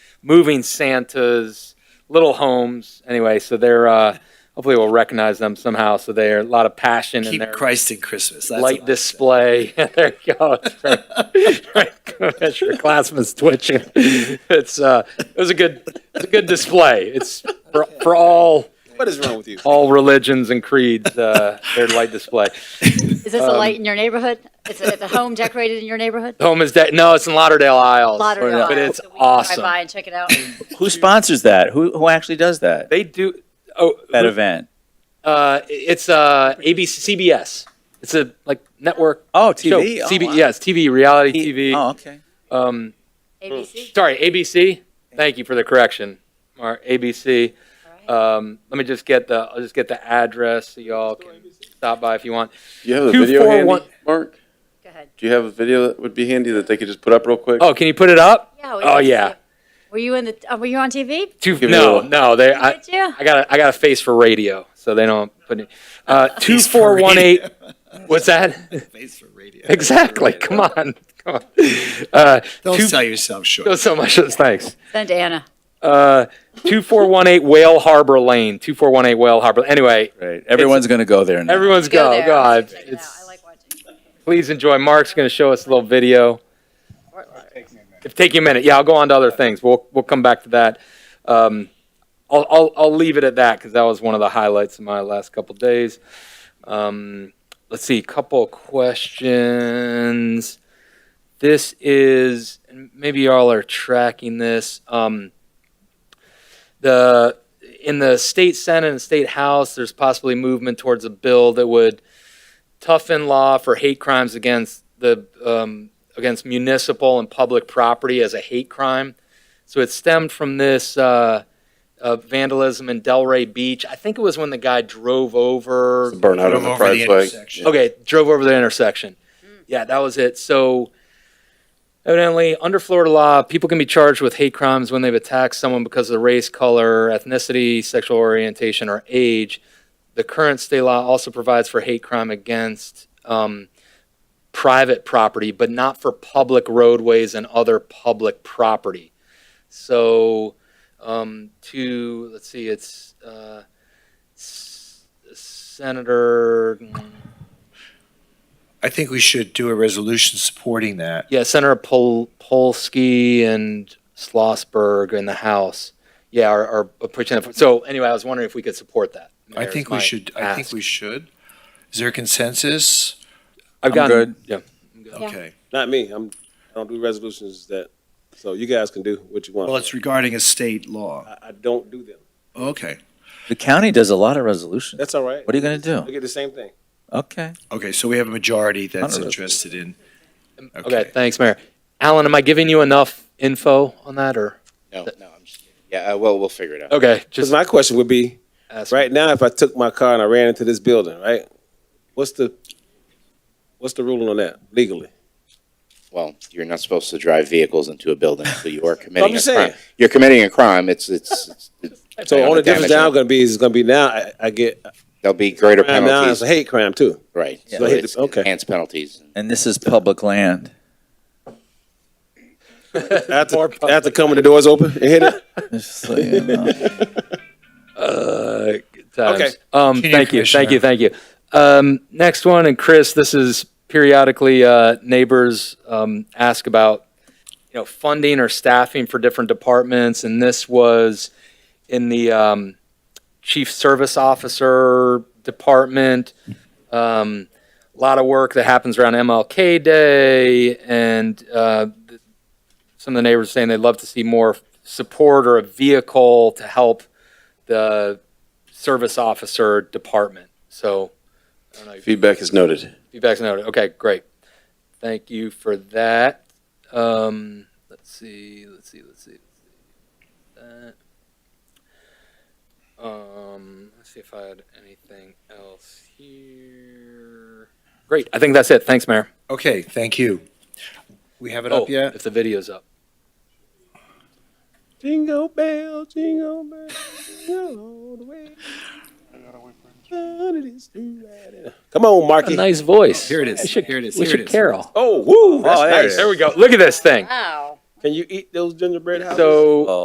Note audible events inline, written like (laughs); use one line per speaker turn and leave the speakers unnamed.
moving Santas, little homes. Anyway, so they're uh, hopefully we'll recognize them somehow. So they're a lot of passion in
Keep
their
Christ in Christmas. That's
light
what-
display. (laughs) there you go. That's right. right. (laughs) Commissioner Glassman's twitching. It's uh, it was a good, it's a good display. It's for, for all
What is wrong
(laughs)
with you?
all religions and creeds. Uh, their light display.
Is this a light
Um,
in your neighborhood? It's a, it's a home decorated in your neighborhood?
The home is dead. No, it's in Lauderdale Isles.
Lauderdale.
but it's
So we can Drive
awesome. Mm.
by and check it out.
Who sponsors that? Who who actually does that?
They do. Oh,
That event?
Uh, it's uh, ABC, CBS. It's a like network
Oh,
show.
TV. Oh,
CB,
wow.
yes, TV, reality TV.
Oh, okay.
Um,
ABC?
sorry, ABC. Thank you for the correction, Mark. ABC.
All right.
Um, let me just get the. I'll just get the address so y'all can stop by if you want.
Do you have the
Two,
video
four,
handy,
one-
Mark?
Go ahead.
Do you have a video that would be handy that they could just put up real quick?
Oh, can you put it up?
Yeah. we
Oh,
can see
yeah.
it. Were you in the, uh, were you on TV?
Two,
Give me a
no,
little-
no. They. I,
Did you?
I got. A, I got a face for radio, so they don't put it. Uh, two four one eight. What's that?
Face for radio.
exactly. Come on. Come on. Uh,
Don't
two,
sell yourself short.
Oh, so much. Thanks.
Send to Anna.
Uh, 2418 Whale Harbor Lane. 2418 Whale Harbor. Anyway,
Right. Everyone's going to go there now.
everyone's
Go
go.
there.
go. I-
Check it out. I
It's,
like watching.
please enjoy. Mark's going to show us a little video.
Fort Lauderdale.
If take you a minute, yeah, I'll go on to other things. We'll we'll come back to that. Um, I'll, I'll I'll leave it at that because that was one of the highlights of my last couple days. Um, let's see, couple questions. This is and maybe y'all are tracking this. Um, the in the state senate and state house, there's possibly movement towards a bill that would toughen law for hate crimes against the um, against municipal and public property as a hate crime. So it stemmed from this uh, uh, vandalism in Delray Beach. I think it was when the guy drove over.
It's a burnout on
Come
the
over the
pride flag.
intersection.
Okay, drove over the intersection. Yeah, that was it. So evidently, under Florida law, people can be charged with hate crimes when they've attacked someone because of race, color, ethnicity, sexual orientation, or age. The current state law also provides for hate crime against um, private property, but not for public roadways and other public property. So, um, to let's see, it's uh, S- Senator.
I think we should do a resolution supporting that.
Yeah, Senator Pol- Polsky and Schlossberg in the House. Yeah, are, are pushing it. So anyway, I was wondering if we could support that.
I
Mayor,
think
is my
we should, I think
ask.
we should. Is there a consensus?
I've
I'm
gotten,
good.
yeah.
Yeah.
Okay.
Not me. I'm, I don't do resolutions that, so you guys can do what you want.
Well, it's regarding a state law.
I, I don't do them.
Okay.
The county does a lot of resolutions.
That's all right.
What are you going to
I
do?
get the same thing.
Okay.
Okay, so we have a majority that's
Hundred.
interested in.
Mm, Okay. thanks, Mayor. Alan, am I giving you enough info on that or?
No, no, I'm just kidding. Yeah, uh, well, we'll figure it out.
Okay,
Because
just
my question would be,
ask.
right now, if I took my car and I ran into this building, right? What's the, what's the ruling on that legally?
Well, you're not supposed to drive vehicles into a building, so you are committing a
just saying.
crime. You're committing a crime. It's, it's, it's- it's-
So
Yeah,
only
the damage
difference now
on-
gonna be, is gonna be now, I, I get,
there'll be greater
crime now is
penalties,
a hate crime too.
right?
Yeah.
So it's
Okay.
enhanced penalties.
And this is public land. (laughs)
(laughs)
After,
More public.
after coming, the doors open and hit it?
It's like, you know.
Uh, good times.
Okay.
Um,
Continue,
thank you, thank
Commissioner.
you, thank you. Um, next one, and Chris, this is periodically, uh, neighbors, um, ask about, you know, funding or staffing for different departments, and this was in the, um, chief service officer department. Um, a lot of work that happens around MLK Day, and, uh, th- some of the neighbors saying they'd love to see more support or a vehicle to help the service officer department. So, I don't know, if
(laughs) Feedback is noted.
feedback's noted. Okay, great. Thank you for that. Um, let's see, let's see, let's see. Let's see. That. Um, let's see if I had anything else here. Great, I think that's it. Thanks, Mayor.
Okay, thank you. We have it
Oh,
up yet?
If the video's up.
Jingle bell, jingle bell, jingle all the way. Down it is to ride it. Come on, Marky.
Nice voice.
Here it is, here it is,
We
here
should
it is.
carol.
Oh, woo, that's
Oh, there it
nice.
is.
There we go. Look at this thing.
Wow.
Can you eat those gingerbread houses?
So